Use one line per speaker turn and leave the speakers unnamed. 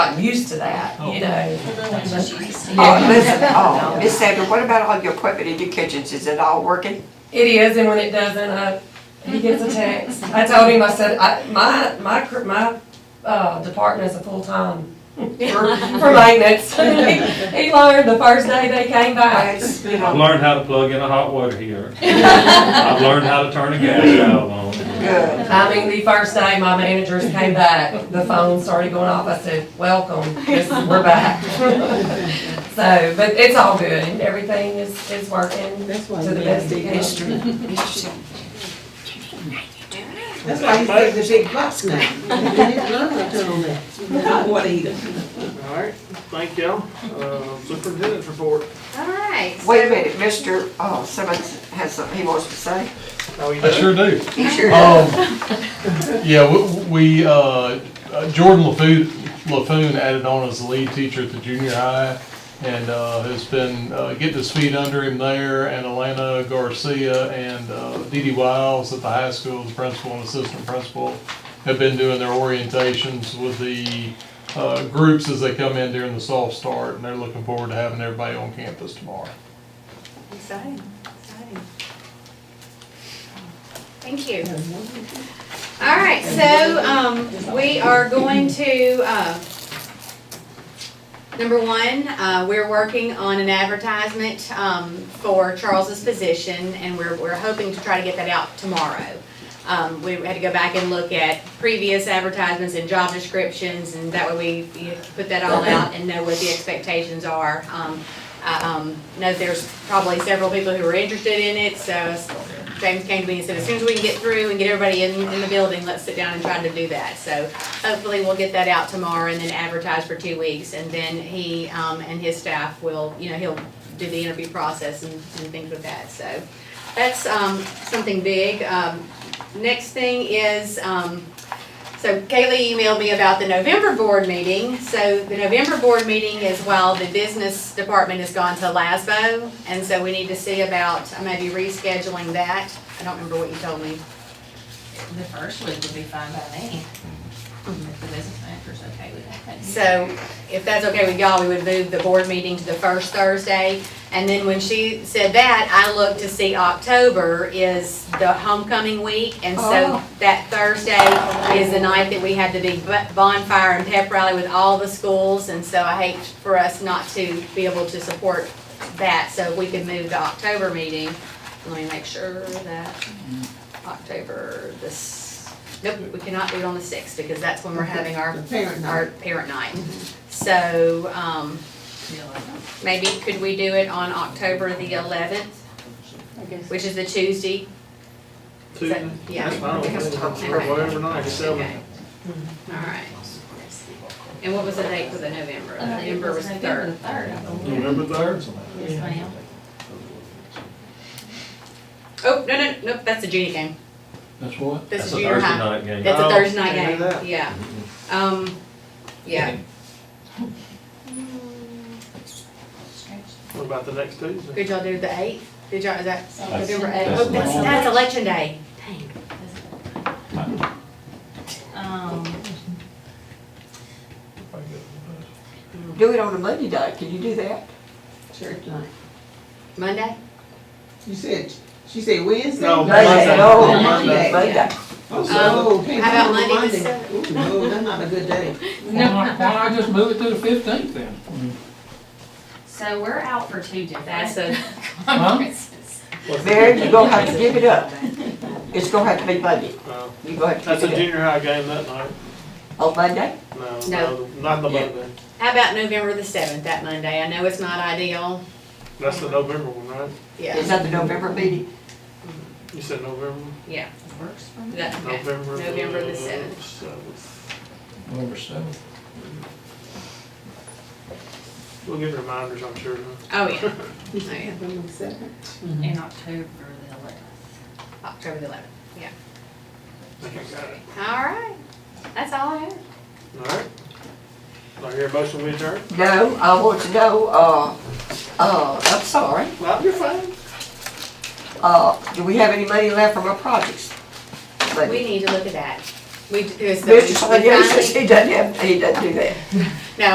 not used to that, you know?
Oh, listen, oh, Miss Sandra, what about all your equipment in your kitchens? Is it all working?
It is, and when it doesn't, I, he gets a text. I told him, I said, I, my, my, cr- my, uh, department is a full-time for, for maintenance. He he learned the first day they came
I
back.
just, you
I've
know,
learned how to plug in a hot water heater. I've learned how to turn a gas valve on.
good.
I mean, the first day my managers came back, the phone started going off. I said, welcome, this- we're back. So, but it's all good, and everything is, is working to
That's why
the
we
best of
have big
our
bucks.
ability.
That's why he's getting the big bucks now. He didn't learn how to do that. Hot water heater.
All right, thank y'all. Uh, Superintendent's report.
All right.
Wait a
so-
minute, Mr., oh, Simmons has something he wants to say.
How you
I
doing?
sure do.
He sure
Um, yeah, we- we, uh, Jordan LaFoon, LaFoon added on as the lead teacher at the junior high and, uh, has been, uh, getting his feet under him there and Alana Garcia and, uh, Dee Dee Wiles at the high school as principal and assistant principal have been doing their orientations with the, uh, groups as they come in during the soft start and they're looking forward to having everybody on campus tomorrow.
Exciting, exciting. Thank you. All right, so, um, we are going to, uh, number one, uh, we're working on an advertisement, um, for Charles's position, and we're, we're hoping to try to get that out tomorrow. Um, we had to go back and look at previous advertisements and job descriptions, and that way we, you put that all out and know what the expectations are. Um, I um, know there's probably several people who are interested in it, so James came to me and said, as soon as we can get through and get everybody in, in the building, let's sit down and try to do that. So hopefully we'll get that out tomorrow and then advertise for two weeks, and then he, um, and his staff will, you know, he'll do the interview process and, and things with that, so. That's, um, something big. Um, next thing is, um, so Kaylee emailed me about the November board meeting. So the November board meeting is while the business department has gone to LASBO. And so we need to see about maybe rescheduling that. I don't remember what you told me.
The first week would be fine by me, if the business manager's okay with that.
So if that's okay with y'all, we would move the board meeting to the first Thursday. And then when she said that, I looked to see October is the homecoming week. And so
Oh.
that Thursday is the night that we had the big bu- bonfire and pep rally with all the schools. And so I hate for us not to be able to support that, so we could move the October meeting. Let me make sure that October, this, nope, we cannot do it on the sixth because that's when we're having our
The parent night.
our parent night. So, um, maybe could we do it on October the eleventh, which is the Tuesday?
Tuesday?
Yeah.
That's fine.
Okay.
Or Whatever night, seven.
Okay. All right. And what was the date for the November? November Uh, was the third.
Third, I believe.
November third?
Yes, ma'am.
Oh, no, no, nope, that's the junior game.
That's what?
That's
That's
the
a
junior
Thursday
high.
night game.
That's a
Oh,
Thursday night
I knew
game,
that.
yeah. Um, yeah,
What about the next Tuesday?
could y'all do the eighth? Did y'all, is that
That's-
November eighth?
that's
Oh, That's,
the-
that's election day. Dang.
Um,
Do it on a Monday night, can you do that?
Church night.
Monday?
You said, she said Wednesday?
No,
Monday,
Monday.
no,
Monday.
Monday.
Oh, so,
Um,
okay,
how about Monday the
Ooh, no, that's not a good day.
Why not, why not just move it to the fifteenth then?
so we're out for two
That's
different
a,
conferences.
What's the-
Mary, you're gonna have to give it up. It's gonna have to be Monday.
Uh,
You're gonna have
That's
to
a
give it
junior high game that night.
up. On Monday?
No,
No.
no, not the
Yeah.
Monday.
how about November the seventh, that Monday? I know it's not ideal.
That's the November one, right?
Is
Yeah,
that the November meeting?
You said November?
yeah.
Works for me.
That, okay.
November.
November the seventh.
seventh.
November seventh.
We'll get reminders, I'm sure.
Oh, yeah, Oh, yeah.
November seventh.
In October the eleventh.
October the eleventh.
I think I got it.
All right, that's all I have.
All right. Do I hear a motion we adjourn?
No, I want to know, uh, uh, I'm sorry,
Well, you're fine.
uh, do we have any money left from our projects? Money.
We need to look at that. We, because the.
Mr. Sonia
we
says
finally-
he doesn't have, he doesn't do that.